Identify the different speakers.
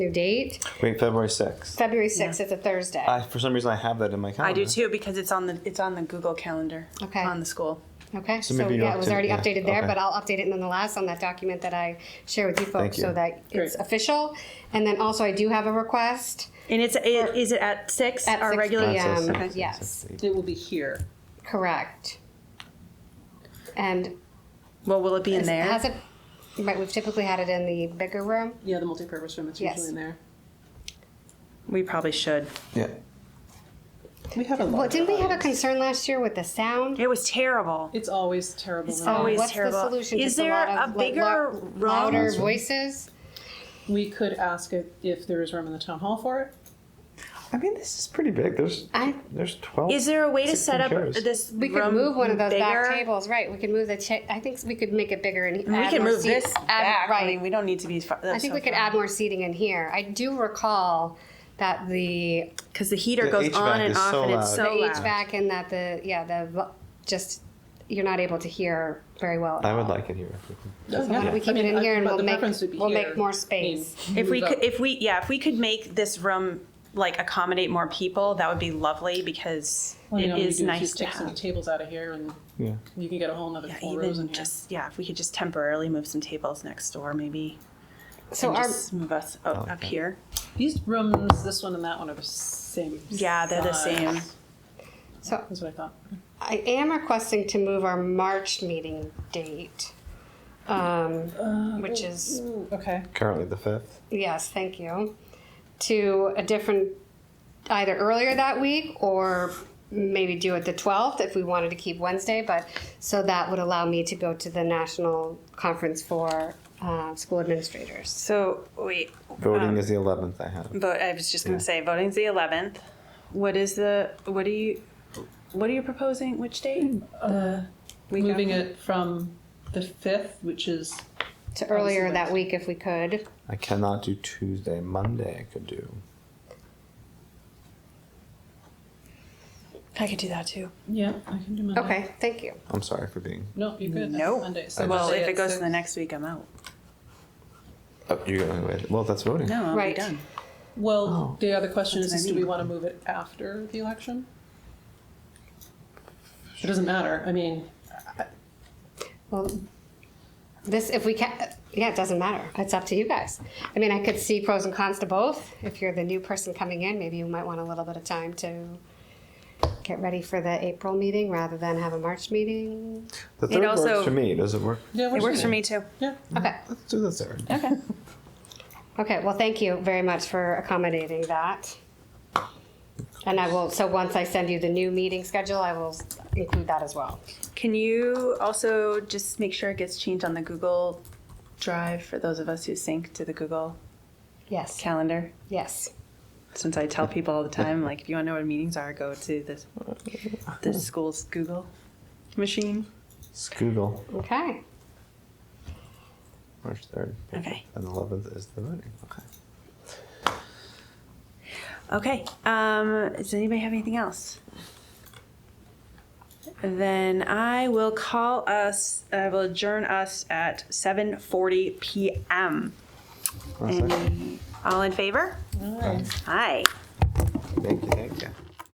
Speaker 1: due date.
Speaker 2: Wait, February 6th.
Speaker 1: February 6th is a Thursday.
Speaker 2: I, for some reason, I have that in my
Speaker 3: I
Speaker 2: calendar.
Speaker 3: do too because it's on the it's on the Google Calendar.
Speaker 1: Okay.
Speaker 3: On the school.
Speaker 1: okay. So,
Speaker 2: So maybe you
Speaker 1: yeah, it was
Speaker 2: updated-
Speaker 1: already
Speaker 2: yeah,
Speaker 1: updated there,
Speaker 2: okay.
Speaker 1: but I'll update it nonetheless on that document that I share with you folks
Speaker 2: you.
Speaker 1: so that it's
Speaker 4: Great.
Speaker 1: official. And then also, I do have a request
Speaker 4: And it's, it- is it at six,
Speaker 1: at
Speaker 4: our
Speaker 1: 6
Speaker 4: regular?
Speaker 1: p.m.
Speaker 2: That's it,
Speaker 1: Okay.
Speaker 2: six,
Speaker 1: Yes.
Speaker 2: six, eight.
Speaker 4: It will be here.
Speaker 1: Correct. And
Speaker 3: Well, will it be in
Speaker 1: is-
Speaker 3: there?
Speaker 1: has it? Right, we've typically had it in the bigger room.
Speaker 4: Yeah, the multipurpose room, it's
Speaker 1: Yes.
Speaker 4: usually in there.
Speaker 3: we probably should.
Speaker 2: Yeah.
Speaker 4: We have a lot.
Speaker 1: Well, didn't we have a concern last year with the sound? Uh,
Speaker 3: It was terrible.
Speaker 4: It's always terrible. when
Speaker 3: always
Speaker 1: What's
Speaker 3: terrible.
Speaker 1: the solution?
Speaker 3: Is
Speaker 1: Just
Speaker 3: there
Speaker 1: a, lot of,
Speaker 3: a
Speaker 1: like,
Speaker 3: bigger
Speaker 1: lo-
Speaker 3: room?
Speaker 1: louder voices?
Speaker 4: We could ask if- if there is room in the town hall for it.
Speaker 2: I mean, this is pretty big. There's
Speaker 1: I-
Speaker 2: there's 12.
Speaker 3: Is there a way to set up
Speaker 2: chairs.
Speaker 3: this?
Speaker 1: We could
Speaker 3: room
Speaker 1: move one of those back
Speaker 3: bigger?
Speaker 1: tables, right? We could move the cha- I think we could make it bigger and
Speaker 3: And we
Speaker 1: add
Speaker 3: can
Speaker 1: more
Speaker 3: move
Speaker 1: seats.
Speaker 3: this
Speaker 1: Add-
Speaker 3: back.
Speaker 1: Right.
Speaker 3: I mean, we don't need to be. Far,
Speaker 1: I think we could add more seating in here. I do recall that the
Speaker 3: because the heater
Speaker 2: The
Speaker 3: goes
Speaker 2: HVAC
Speaker 3: on and
Speaker 2: is
Speaker 3: off,
Speaker 2: so
Speaker 3: and it's
Speaker 2: loud.
Speaker 3: so
Speaker 1: the
Speaker 3: loud.
Speaker 1: HVAC and that the yeah the vo- just you're not able to hear very well. at
Speaker 2: I would
Speaker 1: all.
Speaker 2: like it here.
Speaker 4: So
Speaker 1: Why don't Oh, we keep it in here and we'll make we'll make more space.
Speaker 3: If we could, if we, yeah, if we could make this room like accommodate more people, that would be lovely because it is nice to
Speaker 4: Take some
Speaker 3: have.
Speaker 4: tables out of here and
Speaker 2: Yeah.
Speaker 4: you can get a whole nother
Speaker 3: Yeah,
Speaker 4: four rows in
Speaker 3: even
Speaker 4: here.
Speaker 3: just yeah, if we could just temporarily move some tables next door, maybe,
Speaker 1: So
Speaker 3: and
Speaker 1: our
Speaker 3: just move us up, up here.
Speaker 4: These rooms, this one and that one are the same.
Speaker 3: Yeah, they're the same.
Speaker 4: size.
Speaker 1: so
Speaker 4: That's what I thought.
Speaker 1: I am requesting to move our March meeting date, um, which is
Speaker 4: Ooh, Okay.
Speaker 2: Currently the 5th.
Speaker 1: yes, thank you, to a different either earlier that week or maybe do it the 12th if we wanted to keep Wednesday. But so that would allow me to go to the national conference for uh, school administrators.
Speaker 3: So wait,
Speaker 2: Voting
Speaker 3: Oh.
Speaker 2: is the 11th, I have.
Speaker 3: vote. I was just gonna say, voting's the eleventh. What is the? What are you? What are you proposing? Which date? We
Speaker 4: Uh, Moving it from the fifth, which is,
Speaker 1: to earlier that week if we could.
Speaker 2: I cannot do Tuesday. Monday I could do.
Speaker 3: I could do that too.
Speaker 4: yeah, I can do Monday.
Speaker 1: Okay, thank you.
Speaker 2: I'm sorry for being.
Speaker 4: No, you could.
Speaker 3: No.
Speaker 4: Monday. So
Speaker 3: Well,
Speaker 4: Monday
Speaker 3: if
Speaker 4: at
Speaker 3: it goes to the
Speaker 4: six.
Speaker 3: next week, I'm out.
Speaker 2: Oh, you're going away. Well, that's voting.
Speaker 3: No, I'm
Speaker 1: Right.
Speaker 3: done.
Speaker 4: Well, the other question is,
Speaker 3: Oh, what I
Speaker 4: is do we
Speaker 3: mean.
Speaker 4: want to move it after the election? It doesn't matter. I mean,
Speaker 1: Well, this, if we can, yeah, it doesn't matter. It's up to you guys. I mean, I could see pros and cons to both. If you're the new person coming in, maybe you might want a little bit of time to get ready for the April meeting rather than have a March meeting.
Speaker 2: The 3rd
Speaker 3: also-
Speaker 2: works for me. Does it work?
Speaker 4: yeah,
Speaker 3: It works for me too.
Speaker 4: Yeah.
Speaker 1: Okay,
Speaker 2: Let's do the 3rd.
Speaker 3: Okay.
Speaker 1: okay, well, thank you very much for accommodating that. And I will, so once I send you the new meeting schedule, I will include that as well.
Speaker 3: Can you also just make sure it gets changed on the Google Drive for those of us who sync to the Google
Speaker 1: Yes,
Speaker 3: Calendar?
Speaker 1: yes.
Speaker 3: Since I tell people all the time, like if you want to know what meetings are, go to this the school's Google machine.
Speaker 2: Scoodle,
Speaker 1: Okay,
Speaker 2: March 3rd.
Speaker 3: Okay.
Speaker 2: And 11th is the voting. Okay.
Speaker 3: Okay. Um, does anybody have anything else? Then I will call us. I will adjourn us at 7:40 p.m.
Speaker 2: One second.
Speaker 3: And all in favor? Aye.
Speaker 2: Thank you. Thank you.